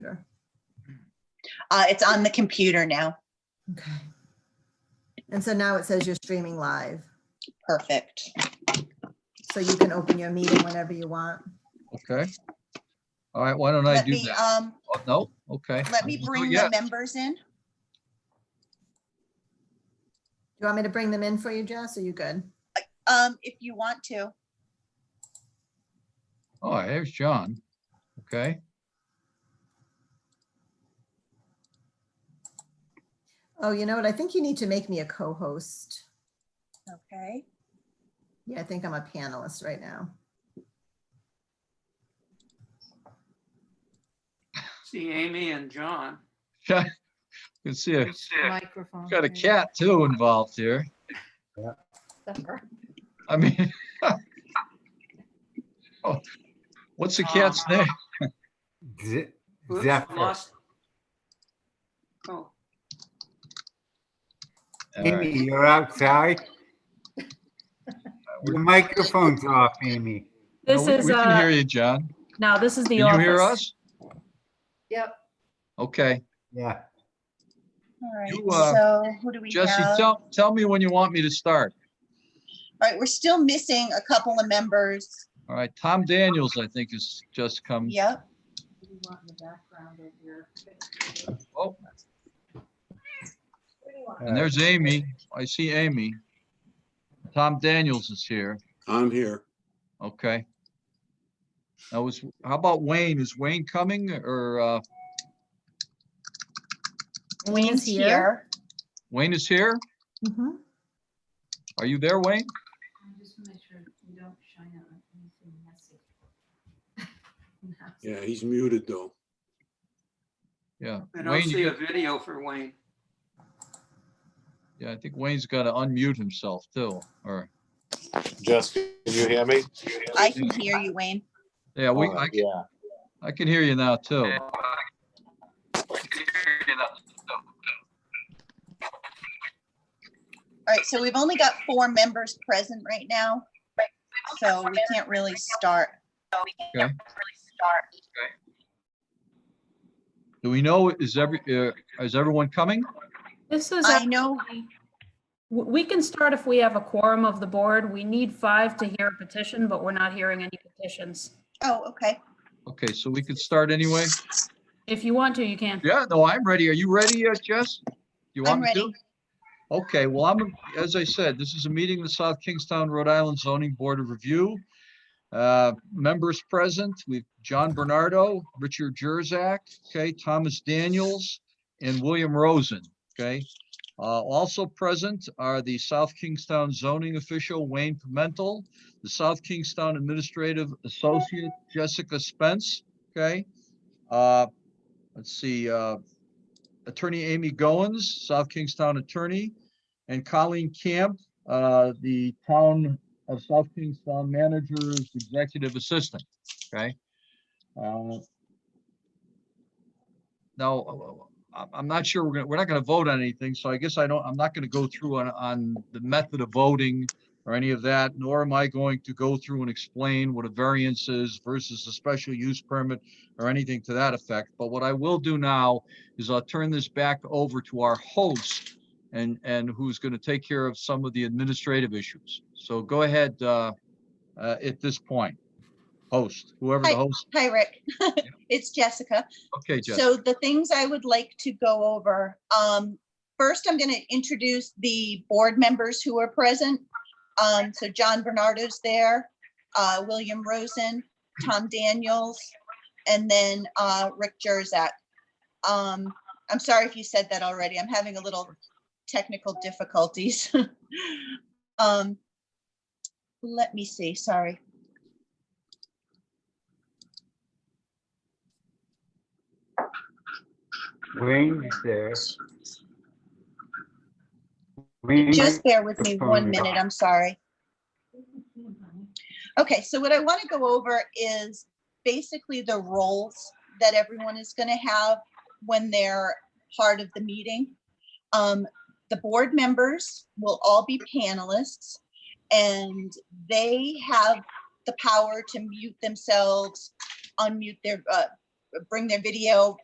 Uh, it's on the computer now. Okay. And so now it says you're streaming live, Perfect. so you can open your meeting whenever you want. Okay. All right, why don't I Let do me, that? um, Oh, No, okay. let We'll me do it bring the yet. members in. Do you want me to bring them in for you, Jess? Are you good? Um, if you want to, Oh, here's John. Okay, Oh, you know what? I think you need to make me a co-host. okay. Yeah, I think I'm a panelist right now. See Amy and John. good to see you. Microphone. Got a cat too involved here. I mean. Oh, What's the cat's Uh, name? Ze- Whoops, Zephyr. lost- Oh, All right, Amy, you're outside? Your microphone's off, Amy. This we- is, We can hear uh, you, John. now this is the Can you hear office. us? Yep. Okay, Yeah. All You, right, uh, so who do we Jesse, have? All tell, tell me when you want me to start. right, we're still missing a couple of members. All right, Tom Daniels, I think, has just come. Yep. Oh, uh, and there's Amy. I see Amy. Tom Daniels is here. I'm here. Okay. Now, was, how about Wayne? Is Wayne coming or, uh, Wayne's Wayne is here? Mhm. Are you there, Wayne? Just make sure you don't shine on anything messy. Yeah, he's muted though. Yeah. I Wayne, don't you see a got- video for Wayne. Yeah, I think Wayne's got to unmute himself too, or, Jess, can you hear me? I can hear you, Wayne. yeah, we, Uh, I, Yeah, I can hear you now too. All right, so we've only got four members present right now. So we can't really start. Okay. Do we know, is every, uh, is everyone coming? This is, I actually- know, w- we can start if we have a quorum of the board. We need five to hear a petition, but we're not hearing any petitions. oh, okay. Okay, so we could start anyway? If you want to, you can. Yeah, no, I'm ready. Are you ready, uh, Jess? Do You I'm want me to? ready. Okay, well, I'm, as I said, this is a meeting of the South Kingstown, Rhode Island Zoning Board of Review. Uh, Members present, we've John Bernardo, Richard Jurzak, okay, Thomas Daniels, and William Rosen, okay? Uh, Also present are the South Kingstown zoning official Wayne Pimental, the South Kingstown Administrative Associate Jessica Spence, okay? Uh, let's see, uh, Attorney Amy Goins, South Kingstown Attorney, and Colleen Camp, uh, the Town of South Kingstown Manager's Executive Assistant, okay? Uh, Now, I'm, I'm not sure, we're gonna, we're not gonna vote on anything, so I guess I don't, I'm not gonna go through on, on the method of voting or any of that, nor am I going to go through and explain what a variance is versus a special use permit or anything to that effect. But what I will do now is I'll turn this back over to our host and, and who's going to take care of some of the administrative issues. So go ahead, uh, uh, at this point. Host, whoever the Hi. host, Hi, Rick. It's Jessica. okay, Jess, So the things I would like to go over, um, first, I'm gonna introduce the board members who are present. Um, so John Bernardo's there, uh, William Rosen, Tom Daniels, and then, uh, Rick Jurzak. Um, I'm sorry if you said that already. I'm having a little technical difficulties. Um, let me see, sorry. Wayne's there. Wayne- Just bear with me one Microphone is minute, on. I'm sorry. Okay, so what I want to go over is basically the roles that everyone is going to have when they're part of the meeting. Um, The board members will all be panelists and they have the power to mute themselves, unmute their, uh, bring their video,